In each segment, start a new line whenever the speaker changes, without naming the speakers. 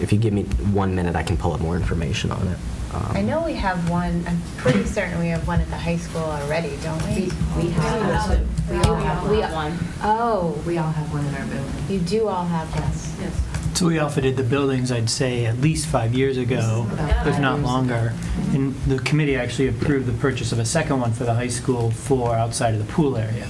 if you give me one minute, I can pull up more information on it. Um,
I know we have one, I'm pretty certain we have one at the high school already, don't we?
We have one.
We
We all
all
have one.
Oh,
We all have one in our building.
you do all have this.
Yes.
So we outfitted the buildings, I'd say, at least five years ago,
About
if
five
not
years
longer.
ago.
And the committee actually approved the purchase of a second one for the high school for outside of the pool area.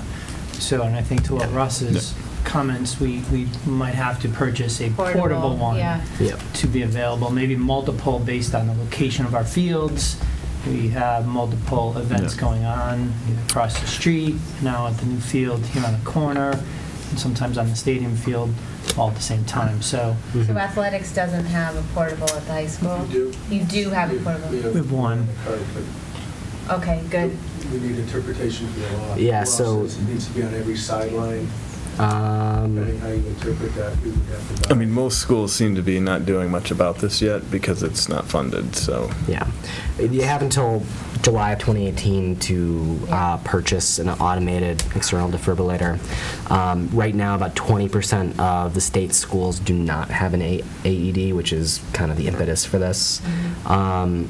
So, and I think to what Russ's comments, we, we might have to purchase a portable one Mm-hmm.
Yeah.
Yep.
to be available, maybe multiple based on the location of our fields. We have multiple events
Yeah.
going on across the street, now at the new field here on the corner, and sometimes on the stadium field, all at the same time. So
Mm-hmm.
So athletics doesn't have a portable at the high school?
You do.
You do have a
We- we
portable?
have-
we have one.
All right, but
Okay, good.
We need interpretation for the law.
Yeah,
Law
so-
says It needs to be on every sideline, depending
Um,
how you interpret that, we would have to.
I mean, most schools seem to be not doing much about this yet because it's not funded, so.
yeah. You have until July of 2018 to uh, purchase an automated external defibrillator. Um, right now, about 20% of the state schools do not have an A- AED, which is kind of the impetus for this. Um,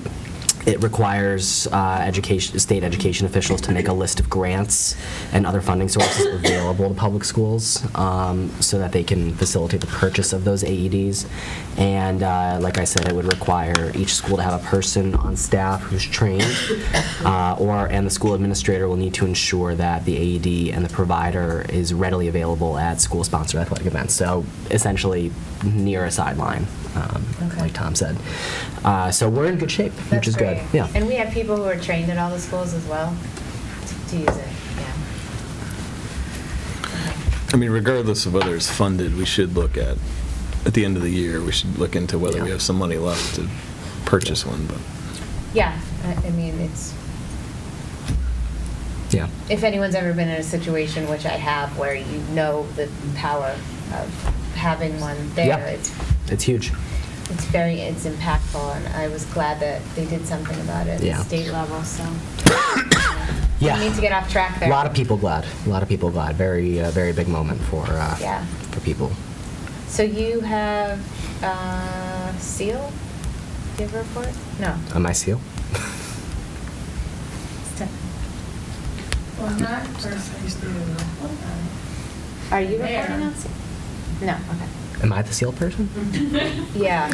it requires uh, education, state education officials to make a list of grants and other funding sources available to public schools um, so that they can facilitate the purchase of those AEDs. And uh, like I said, it would require each school to have a person on staff who's trained, uh, or and the school administrator will need to ensure that the AED and the provider is readily available at school-sponsored athletic events. So essentially, near a sideline, um,
Okay.
like Tom said. Uh, so we're in good shape which
That's
is good.
great.
Yeah.
And we have people who are trained at all the schools as well to use it, yeah.
I mean, regardless of whether it's funded, we should look at, at the end of the year, we should look into whether we
Yeah.
have some money left to purchase one, but.
Yeah, I, I mean, it's,
Yeah.
if anyone's ever been in a situation, which I have, where you know the power of having one there,
Yeah.
it's,
It's huge.
it's very, it's impactful, and I was glad that they did something about it at
Yeah.
the state level, so.
Yeah.
We need to get off track
A
there.
lot of people glad. A lot of people glad. Very, uh, very big moment for uh,
Yeah.
for people.
So you have, uh, seal? Do you have a report? No.
Am I seal?
Stefan.
Well, not first, I used to do. um,
Are you
Mayor.
reporting on seal? No, okay.
Am I the seal person?
Yeah.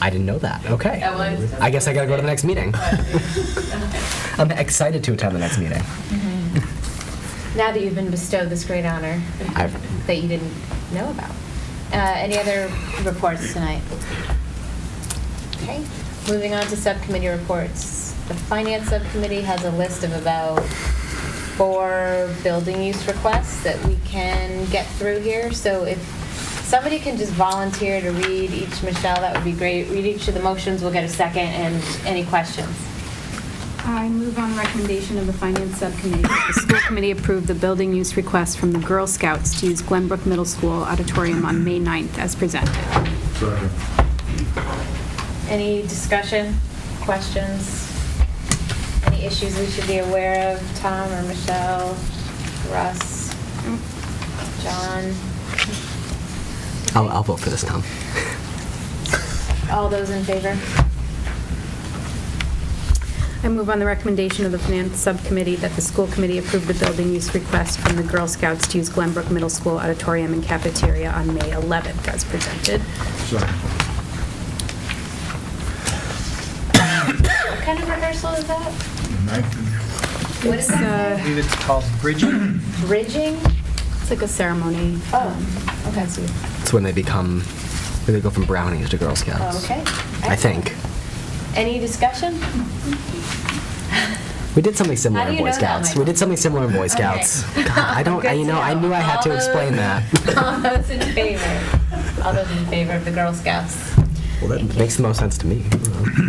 I didn't know that. Okay.
That was-
I guess I gotta go to the next meeting.
But-
I'm excited to attend the next meeting.
Now that you've been bestowed this great honor
I've-
that you didn't know about. Uh, Any other reports tonight? Okay, moving on to subcommittee reports. The finance subcommittee has a list of about four building use requests that we can get through here. So if somebody can just volunteer to read each, Michelle, that would be great. Read each of the motions, we'll get a second, and any questions?
I move on recommendation of the Finance Subcommittee. The school committee approved the building use request from the Girl Scouts to use Glenbrook Middle School auditorium on May 9th as presented.
Any discussion, questions, any issues we should be aware of, Tom or Michelle, Russ, John?
I'll, I'll vote for this, Tom.
All those in favor?
I move on the recommendation of the Finance Subcommittee that the school committee approved the building use request from the Girl Scouts to use Glenbrook Middle School auditorium and cafeteria on May 11th as presented.
What kind of rehearsal is that? What is
It's
that?
I believe it's called bridging.
Bridging?
It's like a ceremony.
Oh, okay.
It's when they become, when they go from brownies to Girl Scouts.
Oh, okay.
I think.
Any discussion?
We did something similar
How do
in
you
Boy
know that,
Scouts. we
Michael?
did something similar in Boy Scouts. God, I don't, I,
Good
you
to
know, I knew I had
All
to
those-
explain that.
All those in favor? All those in favor of the Girl Scouts?
Well, that
Thank you.
makes the most sense to me.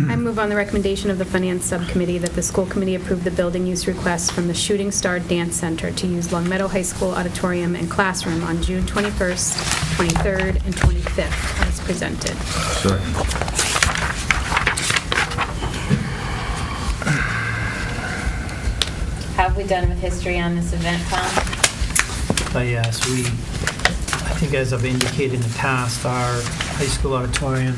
I move on the recommendation of the Finance Subcommittee that the school committee approve the building use request from the Shooting Star Dance Center to use Long Meadow High School auditorium and classroom on June 21st, 23rd, and 25th as presented.
How have we done with history on this event, Tom?
But yes, we, I think as I've indicated in the past, our high school auditorium